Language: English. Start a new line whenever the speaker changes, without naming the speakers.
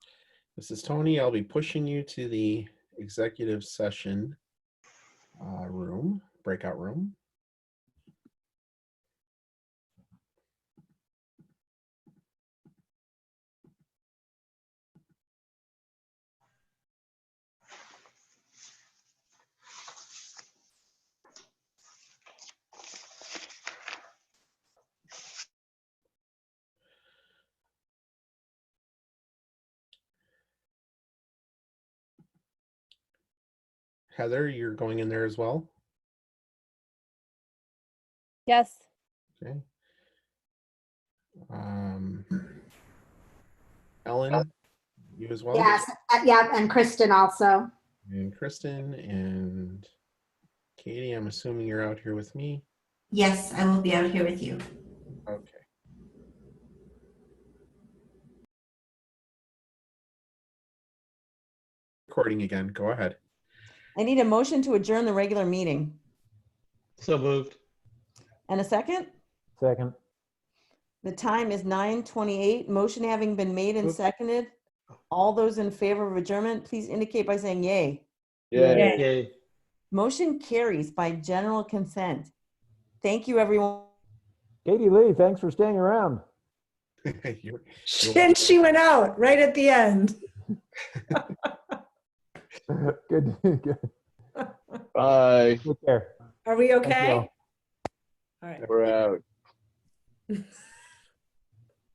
This is Tony. I'll be pushing you to the executive session uh, room, breakout room. Heather, you're going in there as well.
Yes,
Okay. Um, Ellen, you as well?
Yes, uh, yeah, and Kristen also.
And Kristen and Katie, I'm assuming you're out here with me.
Yes, I will be out here with you.
Okay. Recording again. Go ahead.
I need a motion to adjourn the regular meeting.
So moved.
And a second?
Second.
The time is 9:28. Motion having been made and seconded. All those in favor of adjournment, please indicate by saying yay.
Yeah.
Yay.
Motion carries by general consent. Thank you, everyone.
Katie Lee, thanks for staying around.
You're-
And she went out right at the end.
Good, good.
Bye.
Take care.
Are we
Thank you all.
okay? All right.
We're out.